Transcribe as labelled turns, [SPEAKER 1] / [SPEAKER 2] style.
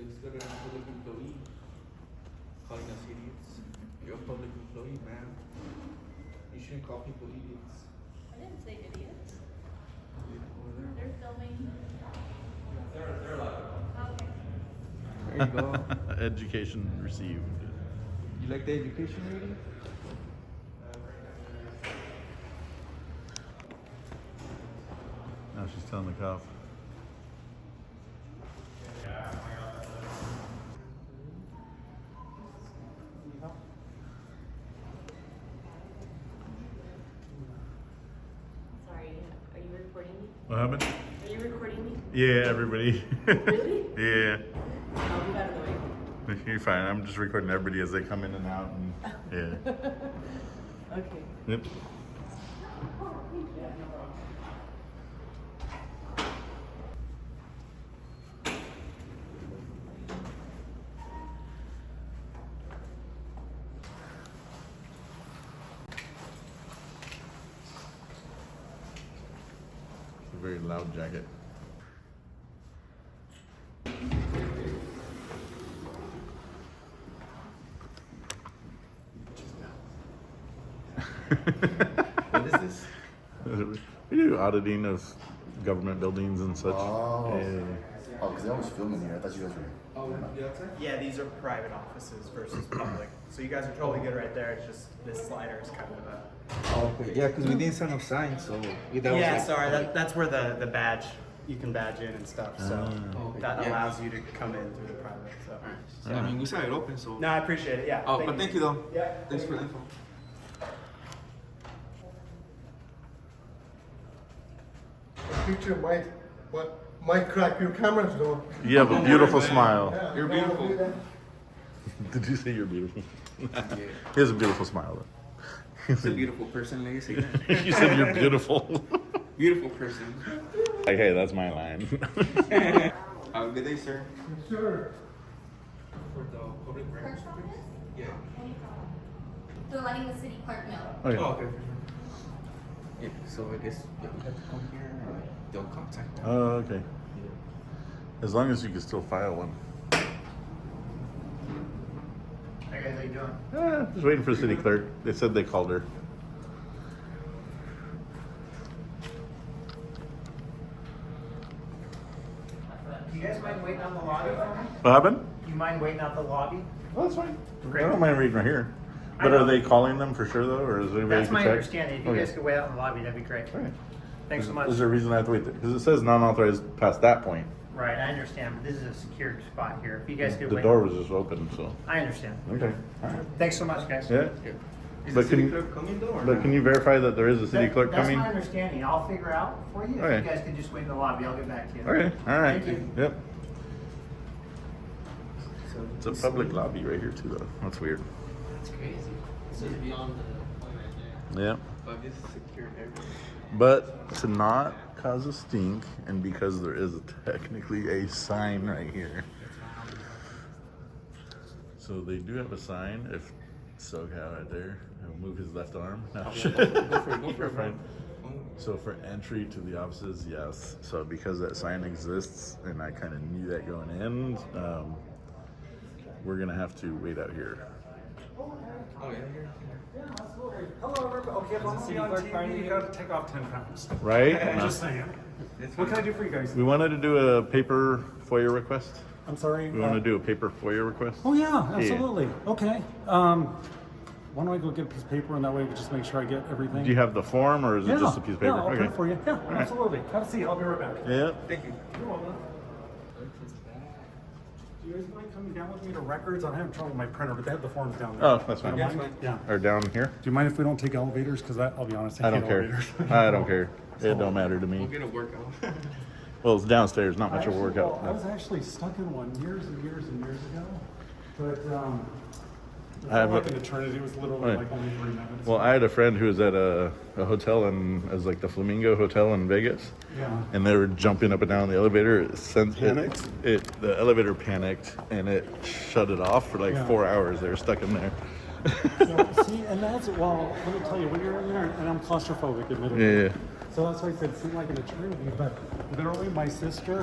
[SPEAKER 1] Instagram public employee calling us idiots. You're a public employee, man. You shouldn't call people idiots.
[SPEAKER 2] I didn't say idiots.
[SPEAKER 1] Over
[SPEAKER 2] They're filming. Okay.
[SPEAKER 1] There There you go.
[SPEAKER 3] Education received.
[SPEAKER 1] you like the education reading?
[SPEAKER 3] Now she's telling the cop.
[SPEAKER 4] Sorry, are you recording me?
[SPEAKER 3] What happened?
[SPEAKER 4] Are you recording me?
[SPEAKER 3] Yeah, everybody.
[SPEAKER 4] Really?
[SPEAKER 3] yeah.
[SPEAKER 4] No, we got annoyed.
[SPEAKER 3] You're fine. I'm just recording everybody as they come in and out. And, yeah.
[SPEAKER 4] Okay.
[SPEAKER 3] yep. It's a very loud jacket.
[SPEAKER 1] What is this?
[SPEAKER 3] we do auditing of government buildings and such.
[SPEAKER 5] Oh.
[SPEAKER 3] Yeah.
[SPEAKER 5] Oh, because I was filming here. I thought you guys were.
[SPEAKER 1] Oh, yeah, that's it.
[SPEAKER 6] Yeah, these are private offices versus public. So you guys are totally good right there. It's just this slider is kind of a.
[SPEAKER 1] Oh, Okay, yeah, because we didn't sign up sign, so that was
[SPEAKER 6] yeah,
[SPEAKER 1] like-
[SPEAKER 6] sorry. That, that's where the, the badge, you can badge in and stuff. So
[SPEAKER 1] Oh,
[SPEAKER 6] that
[SPEAKER 1] yeah.
[SPEAKER 6] allows you to come in through the private. So.
[SPEAKER 1] So, I mean, we signed it open, so.
[SPEAKER 6] No, I appreciate it. Yeah.
[SPEAKER 1] Oh, but thank you though.
[SPEAKER 6] Yeah.
[SPEAKER 1] Thanks for the info.
[SPEAKER 7] Picture might, but might crack your cameras though.
[SPEAKER 3] You have a beautiful
[SPEAKER 1] man.
[SPEAKER 3] smile.
[SPEAKER 7] Yeah,
[SPEAKER 1] You're
[SPEAKER 7] don't do
[SPEAKER 1] beautiful.
[SPEAKER 7] that.
[SPEAKER 3] Did you say you're beautiful? he has a beautiful smile
[SPEAKER 1] He's a beautiful person, like you say that.
[SPEAKER 3] though. you said you're beautiful.
[SPEAKER 1] Beautiful person.
[SPEAKER 3] like, hey, that's my line.
[SPEAKER 1] Have a Uh, good day, sir.
[SPEAKER 7] Sure.
[SPEAKER 1] For the public records.
[SPEAKER 8] clerk's office?
[SPEAKER 1] Yeah.
[SPEAKER 8] They're letting the city clerk know.
[SPEAKER 3] oh, yeah.
[SPEAKER 1] Oh, okay. Yeah, so I guess yeah, we have to come here and like, they'll contact them.
[SPEAKER 3] Oh, okay. As long as you can still file one.
[SPEAKER 6] Hey guys, how you doing?
[SPEAKER 3] Ah, just waiting for the city clerk. They said they called her.
[SPEAKER 6] Do you guys mind waiting on the lobby for me?
[SPEAKER 3] What happened?
[SPEAKER 6] Do you mind waiting out the lobby?
[SPEAKER 3] Well, that's fine.
[SPEAKER 6] Great.
[SPEAKER 3] I don't mind reading right here.
[SPEAKER 6] I
[SPEAKER 3] But are
[SPEAKER 6] know.
[SPEAKER 3] they calling them for sure though, or is anybody
[SPEAKER 6] That's
[SPEAKER 3] can
[SPEAKER 6] my
[SPEAKER 3] check?
[SPEAKER 6] understanding. If you
[SPEAKER 3] Okay.
[SPEAKER 6] guys could wait out in the lobby, that'd be great.
[SPEAKER 3] All right.
[SPEAKER 6] Thanks
[SPEAKER 3] is,
[SPEAKER 6] so much.
[SPEAKER 3] Is there a reason I have to wait there? Because it says non-authorized past that point.
[SPEAKER 6] Right, I understand, but this is a secured spot here. If you guys could
[SPEAKER 3] The
[SPEAKER 6] wait.
[SPEAKER 3] door was just open, so.
[SPEAKER 6] I understand.
[SPEAKER 3] Okay. All right.
[SPEAKER 6] Thanks so much, guys.
[SPEAKER 3] Yeah.
[SPEAKER 1] Yeah. Is
[SPEAKER 3] But
[SPEAKER 1] the city
[SPEAKER 3] can-
[SPEAKER 1] clerk coming though? Or
[SPEAKER 3] But can
[SPEAKER 1] not?
[SPEAKER 3] you verify that there is a city
[SPEAKER 6] That-
[SPEAKER 3] clerk coming?
[SPEAKER 6] That's my understanding. I'll figure out for you. If
[SPEAKER 3] Okay.
[SPEAKER 6] you guys could just wait in the lobby, I'll get back to you.
[SPEAKER 3] Okay. All right.
[SPEAKER 6] Thank you.
[SPEAKER 3] Yep.
[SPEAKER 1] So
[SPEAKER 3] It's a public lobby right here too, though. That's weird.
[SPEAKER 9] That's crazy. This is beyond the point right there.
[SPEAKER 3] Yeah.
[SPEAKER 1] But this is secure and everything.
[SPEAKER 3] But to not cause a stink, and because there is technically a sign right here. So they do have a sign. If SoCal right there, he'll move his left arm. No.
[SPEAKER 1] Go for it, go for
[SPEAKER 3] You're
[SPEAKER 1] it, man.
[SPEAKER 3] fine.
[SPEAKER 1] Oh,
[SPEAKER 3] So for entry to the offices, yes. So because that sign exists, and I kind of knew that going in, um, we're gonna have to wait out here.
[SPEAKER 1] oh, yeah, here.
[SPEAKER 6] Hello, everybody. Okay, if I'm gonna be on TV, you gotta take off ten pounds.
[SPEAKER 3] Right?
[SPEAKER 6] saying.
[SPEAKER 1] It's
[SPEAKER 6] What can I do for you guys?
[SPEAKER 3] we wanted to do a paper FOIA request.
[SPEAKER 10] I'm sorry.
[SPEAKER 3] We want
[SPEAKER 10] uh,
[SPEAKER 3] to do a paper FOIA request.
[SPEAKER 10] Oh yeah, absolutely. Okay. Um, why don't I go get a piece of paper and that way we just make sure I get everything.
[SPEAKER 3] Do you have the form or is
[SPEAKER 10] yeah,
[SPEAKER 3] it just a piece of paper?
[SPEAKER 10] Yeah, I'll print it for you. Yeah,
[SPEAKER 3] right.
[SPEAKER 10] absolutely. Have a seat. I'll be right back.
[SPEAKER 3] Yeah.
[SPEAKER 1] Thank you.
[SPEAKER 10] Do you guys mind coming down with me to records? I'm having trouble with my printer, but they have the forms down there.
[SPEAKER 3] Oh, that's fine.
[SPEAKER 10] You don't
[SPEAKER 1] Yeah,
[SPEAKER 10] mind?
[SPEAKER 1] it's
[SPEAKER 10] Yeah.
[SPEAKER 3] Or down here?
[SPEAKER 10] Do you mind if we don't take elevators? Because I'll be honest, I,
[SPEAKER 3] I don't
[SPEAKER 10] hate
[SPEAKER 3] care.
[SPEAKER 10] elevators.
[SPEAKER 3] I don't care. It don't matter to
[SPEAKER 1] We'll
[SPEAKER 3] me.
[SPEAKER 1] get a workout.
[SPEAKER 3] Well, it's downstairs, not
[SPEAKER 10] I
[SPEAKER 3] much of a
[SPEAKER 10] actually- well, I was
[SPEAKER 3] workout.
[SPEAKER 10] actually stuck in one years and years and years ago, but um, it
[SPEAKER 3] I have
[SPEAKER 10] felt like
[SPEAKER 3] a-
[SPEAKER 10] an eternity. It was literally
[SPEAKER 3] Right.
[SPEAKER 10] like only three minutes.
[SPEAKER 3] Well, I had a friend who was at a, a hotel in, it was like the Flamingo Hotel in Vegas.
[SPEAKER 10] yeah.
[SPEAKER 3] and they were jumping up and down the elevator. It sent panicked. It, the elevator panicked and it shut it off for like
[SPEAKER 10] Yeah.
[SPEAKER 3] four hours. They were stuck in there.
[SPEAKER 10] So, see, and that's well. Let me tell you, when you're in there, and I'm claustrophobic, admittedly.
[SPEAKER 3] yeah.
[SPEAKER 10] So that's why I said it seemed like an eternity, but literally, my sister